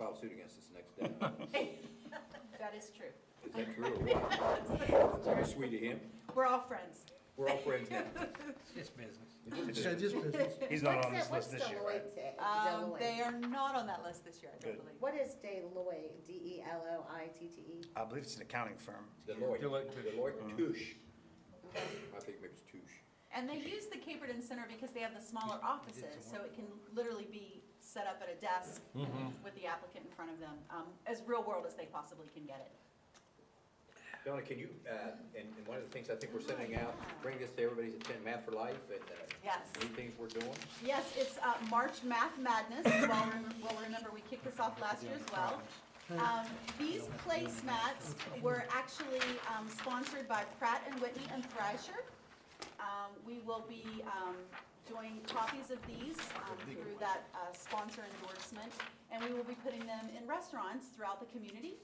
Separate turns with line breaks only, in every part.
lawsuit against us next day.
That is true.
Is that true or what? Are you sweet to him?
We're all friends.
We're all friends now.
It's business.
It's just business.
He's not on this
What's that-
list this year, right?
What's Deloitte?
Um,
Deloitte?
They are not on that list this year, I don't
Good.
believe.
What is Deloitte, E D-E-L-O-I-T-T-E?
I believe it's an accounting firm.
Deloitte,
Deloitte Touche.
Deloitte Touche. I think maybe it's Touche.
And they use the Caperton Center because they have the smaller offices, so it can literally be set up at a desk with the applicant in front of them, um, as real world as they possibly can get it.
Donna, can you, uh, and, and one of the things I think we're sending out, bring this to everybody's attend Math for Life and, uh,
Yes.
new things we're doing.
Yes, it's uh, March Math Madness. Well, rem- well, remember, we kicked this off last year as well. Um, These placemats were actually um, sponsored by Pratt and Whitney and Thrasher. Um, We will be um, doing copies of these um, through that uh, sponsor endorsement, and we will be putting them in restaurants throughout the community.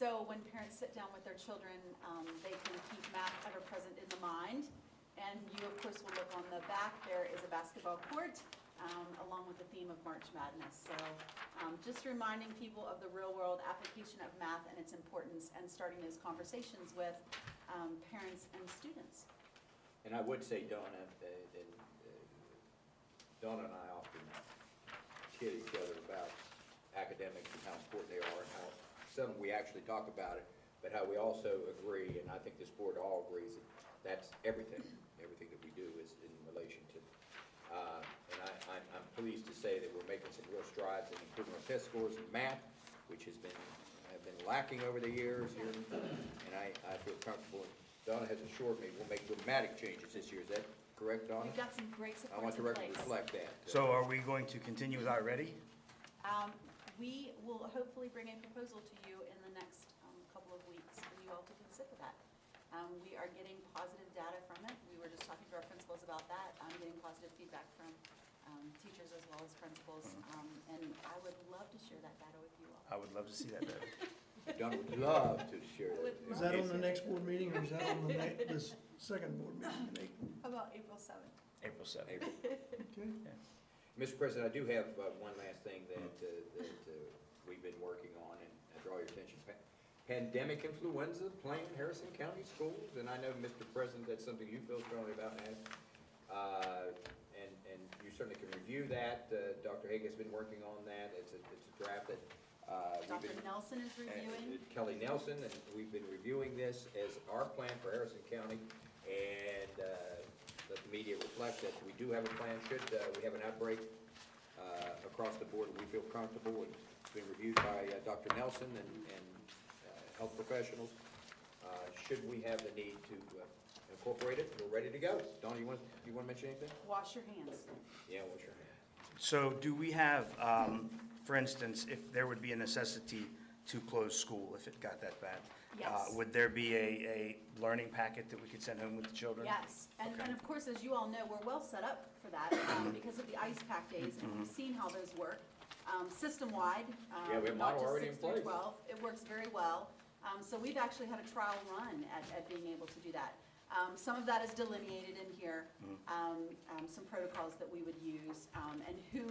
So when parents sit down with their children, um, they can keep math ever present in the mind. And you, of course, will look on the back, there is a basketball court, um, along with the theme of March Madness. So um, just reminding people of the real-world application of math and its importance, and starting those conversations with um, parents and students.
And I would say Donna, uh, and, uh, Donna and I often kid each other about academics and how important they are and how seldom we actually talk about it, but how we also agree, and I think this board all agrees, that that's everything. Everything that we do is in relation to. uh, And I, I'm- I'm pleased to say that we're making some real strides in improving our test scores in math, which has been, have been lacking over the years here. And I, I feel comfortable. Donna has assured me we'll make dramatic changes this year. Is that correct, Donna?
We've got some great
I want
supports
the record
in
to
place.
reflect that.
So are we going to continue without ready?
Um, We will hopefully bring a proposal to you in the next um, couple of weeks for you all to consider that. Um, We are getting positive data from it. We were just talking to our principals about that. I'm getting positive feedback from um, teachers as well as principals. um, And I would love to share that data with you all.
I would love to see that better.
Donna would love to share
I
that.
would
Is that on
It's-
the next board meeting or is that on the next, this second board meeting in April?
How about April 7th?
April 7th.
April.
Okay.
Mr. President, I do have uh, one last thing that, uh, that uh, we've been working on, and I draw your attention. Pa- Pandemic influenza playing Harrison County schools, and I know, Mr. President, that's something you feel strongly about, and, uh, and, and you certainly can review that. Uh, Dr. Hague has been working on that, it's a, it's a draft that, uh, we've been.
Dr. Nelson is reviewing.
and Kelly Nelson, and we've been reviewing this as our plan for Harrison County, and uh, let the media reflect that we do have a plan, should uh, we have an outbreak uh, across the board, we feel comfortable, and it's been reviewed by uh, Dr. Nelson and, and uh, health professionals. Uh, Should we have the need to uh, incorporate it, we're ready to go. Don, you want, you want to mention anything?
Wash your hands.
Yeah, what's your hand?
So do we have, um, for instance, if there would be a necessity to close school if it got that bad? uh,
Yes.
Would there be a, a learning packet that we could send home with the children?
Yes, and,
Okay.
and of course, as you all know, we're well set up for that
Mm-hmm.
um, because of the ice pack days, and we've seen how those work, um, system-wide. um,
Yeah, we have
not
model
just
already
six
in
through
place.
12. It works very well. Um, So we've actually had a trial run at, at being able to do that. Um, Some of that is delineated in here,
Mm-hmm.
um, um, some protocols that we would use, um, and who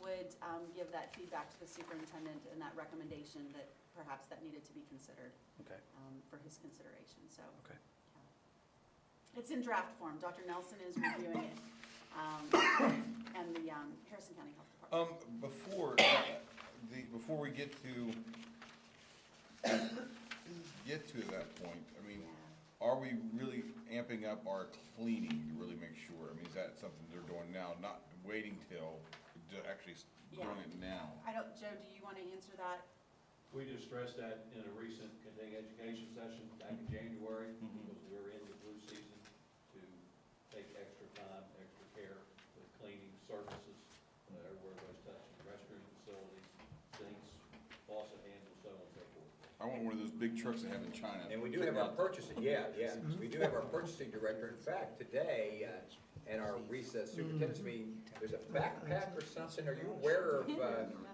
would um, give that feedback to the superintendent and that recommendation that perhaps that needed to be considered
Okay,
um, for his consideration, so.
okay.
It's in draft form. Dr. Nelson is reviewing it, um, and the um, Harrison County Health Department.
Um, before, uh, the, before we get to, get to that point, I mean, are we really amping up our cleaning to really make sure? I mean, is that something they're doing now, not waiting till, to actually s- doing
Yeah.
it now?
I don't, Joe, do you want to answer that?
We just stressed that in a recent continuing education session back in January, because we were in the flu season, to take extra time, extra care with cleaning services, uh, everywhere was touching, restroom facilities, sinks, faucet handles, so on and so forth.
I want one of those big trucks they have in China.
And we do have our purchasing, yeah, yeah, we do have our purchasing director, in fact, today, uh, at our recess superintendent's meeting, there's a backpack or something, are you aware of, uh,